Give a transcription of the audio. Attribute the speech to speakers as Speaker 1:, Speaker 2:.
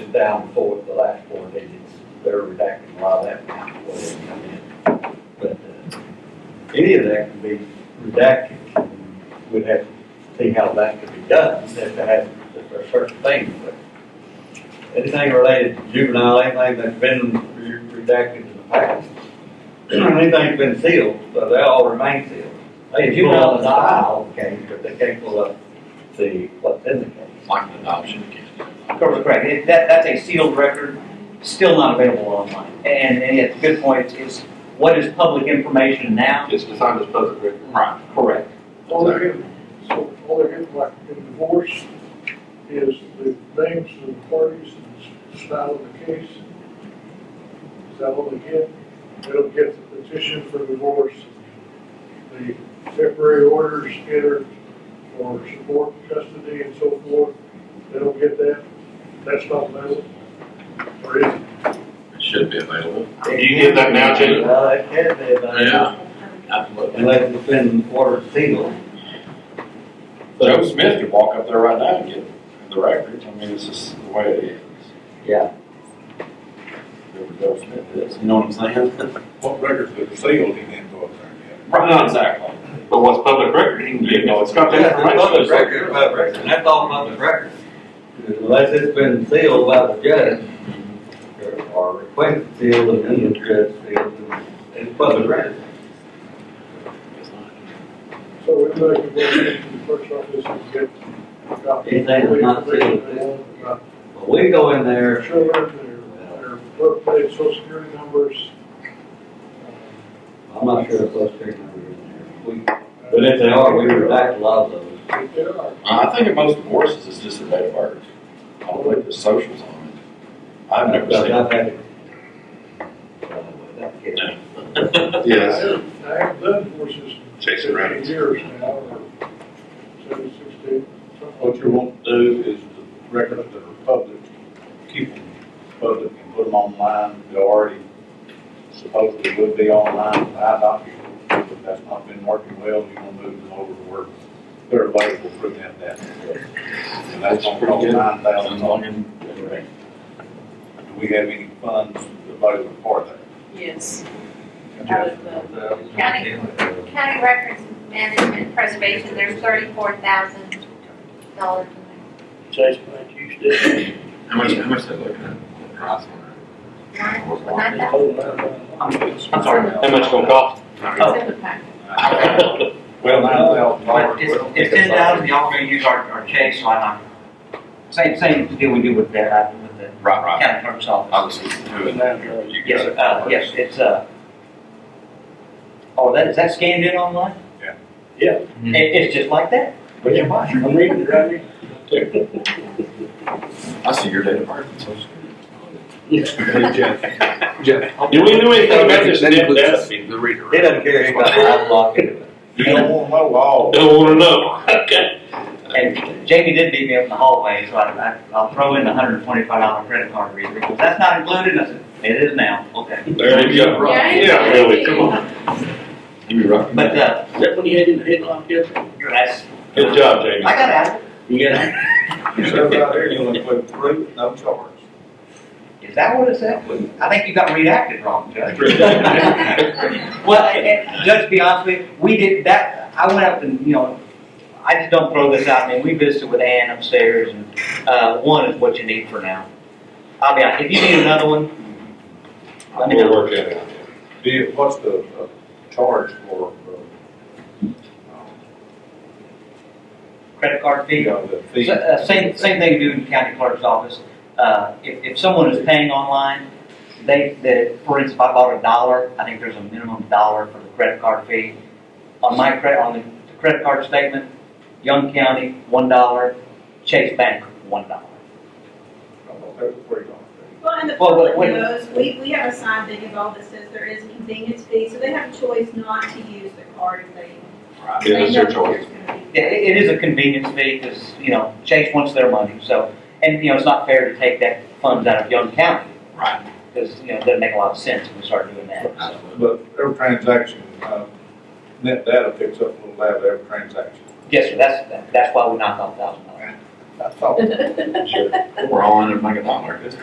Speaker 1: was down for the last four digits. They're redacting a lot of that now, whatever come in. But, uh, any of that can be redacted. We'd have to see how that could be done, if it has, if there are certain things, but anything related to juvenile, anything that's been re- redacted in the past, anything's been sealed, so they all remain sealed. They can pull out the dial case, but they can't pull up the, what's in the case.
Speaker 2: like an adoption case.
Speaker 3: Correct, correct. It- That, that's a sealed record, still not available online. And, and it's a good point, is what is public information now?
Speaker 2: It's designed as public record. Right.
Speaker 3: Correct.
Speaker 4: All they're getting, so all they're getting like in divorce is the names of the parties and the style of the case. Is that all they get? They don't get the petition for divorce, the temporary orders entered for support, custody and so forth. They don't get that. That's not available. Or is it?
Speaker 2: It should be available. You get that now, Jim?
Speaker 1: Uh, it can be,
Speaker 2: Oh,
Speaker 1: but. Unless it's been ordered sealed.
Speaker 2: Joe Smith could walk up there right now and get the records. I mean, it's just the way it is.
Speaker 1: Yeah.
Speaker 2: Whoever Joe Smith is, you know what I'm saying?
Speaker 5: What records that are sealed, he didn't go up there and get.
Speaker 2: Right, not exactly. But what's public record, he can get, no, it's got that information.
Speaker 1: Public record, public record, that's all public record. Unless it's been sealed by the judge, or- or requested sealed, and then the judge sealed, and it's public record.
Speaker 4: So we're going to go to the clerk's office and get a copy.
Speaker 1: Anything that's not sealed.
Speaker 4: About
Speaker 1: Well, we go in
Speaker 4: their
Speaker 1: there,
Speaker 4: children, their, their birthday, social security numbers.
Speaker 1: I'm not sure if those three numbers are in there. We- But if they are, we redact a lot of those.
Speaker 4: If they are,
Speaker 2: Uh, I think in most divorces, it's just a date of birth. I don't think the socials on it. I've never
Speaker 1: But
Speaker 2: seen
Speaker 1: I've
Speaker 2: it.
Speaker 1: had it. Uh, that's good.
Speaker 2: Yes.
Speaker 4: I haven't done horses
Speaker 2: Chase it
Speaker 4: in
Speaker 2: around.
Speaker 4: years now, or seven, sixteen,
Speaker 5: What
Speaker 4: something
Speaker 5: you want to do is the records that are public, keep them public and put them online. They already supposedly would be online by document, but that's not been working well. You're gonna move them over to where they're available through that database. And that's on nine thousand dollars. Do we have any funds available for that?
Speaker 6: Yes, out of the
Speaker 7: County, county records management preservation, there's thirty-four thousand dollars in there.
Speaker 8: Chase Bank used it,
Speaker 2: How much, how much they looking at? Price on
Speaker 7: Nine- nine thousand.
Speaker 2: I'm sorry, how much gonna cost?
Speaker 9: Oh.
Speaker 7: It's in the packet.
Speaker 5: Well, nine thousand dollars.
Speaker 3: But it's, it's ten thousand, y'all gonna use our, our chase line item. Same, same deal we do with that, uh, with the
Speaker 2: Right, right.
Speaker 3: county clerk's office.
Speaker 2: Obviously, two and that. You
Speaker 3: Yes,
Speaker 2: got it.
Speaker 3: uh, yes, it's, uh, oh, that, is that scanned in online?
Speaker 5: Yeah.
Speaker 8: Yeah.
Speaker 3: It, it's just like that?
Speaker 8: but you might, I'm reading it right here.
Speaker 2: I see your date of birth and social.
Speaker 9: Do we know anything about this
Speaker 2: That
Speaker 9: net
Speaker 2: includes
Speaker 9: desk?
Speaker 2: The reader.
Speaker 1: He doesn't care if I block it.
Speaker 5: You don't want to know all.
Speaker 9: Don't wanna know. Okay.
Speaker 3: And Jamie did beat me up in the hallway, so I, I, I'll throw in the hundred and twenty-five dollar credit card reader, because that's not included, and I said, it is now, okay.
Speaker 9: There you go.
Speaker 7: Right.
Speaker 9: Yeah, really, come on.
Speaker 2: You be right.
Speaker 3: But, uh,
Speaker 8: Is that when you had in the headlock, yes?
Speaker 3: that's,
Speaker 9: Good job,
Speaker 3: I
Speaker 9: Jamie.
Speaker 3: got out,
Speaker 9: You got it?
Speaker 5: You said right there, you only put three, no charge.
Speaker 3: is that what it said? I think you got redacted wrong, Judge. Well, and- and Judge, to be honest with you, we did that, I went up and, you know, I just don't throw this out, I mean, we visited with Ann upstairs, and, uh, one is what you need for now. I mean, if you need another one, let me
Speaker 9: We'll
Speaker 3: know.
Speaker 9: work that out.
Speaker 5: Do you, what's the, uh, charge for, uh,
Speaker 3: Credit card fee.
Speaker 5: you know, the fee?
Speaker 3: So, uh, Same, same thing we do in the county clerk's office. Uh, If, if someone is paying online, they, they, for instance, if I bought a dollar, I think there's a minimum dollar for the credit card fee. On my credit, on the credit card statement, Young County, one dollar, Chase Bank, one dollar.
Speaker 5: That's pretty long.
Speaker 6: Well, and the
Speaker 3: Well,
Speaker 6: public
Speaker 3: wait, wait.
Speaker 6: knows, we, we have a sign thing involved that says there is a convenience fee, so they have a choice not to use the card if they.
Speaker 2: Yeah,
Speaker 6: they
Speaker 2: that's your
Speaker 6: know
Speaker 2: choice.
Speaker 6: there's gonna be-
Speaker 3: Yeah, it, it is a convenience fee because, you know, Chase wants their money, so, and, you know, it's not fair to take that funds out of Young County
Speaker 2: Right.
Speaker 3: because, you know, it doesn't make a lot of sense if we start doing that.
Speaker 5: But every transaction, uh, net data picks up a little out of every transaction.
Speaker 3: Yes, sir, that's, that's why we knocked off a thousand dollars.
Speaker 5: That's all.
Speaker 2: We're all in it, make a dollar.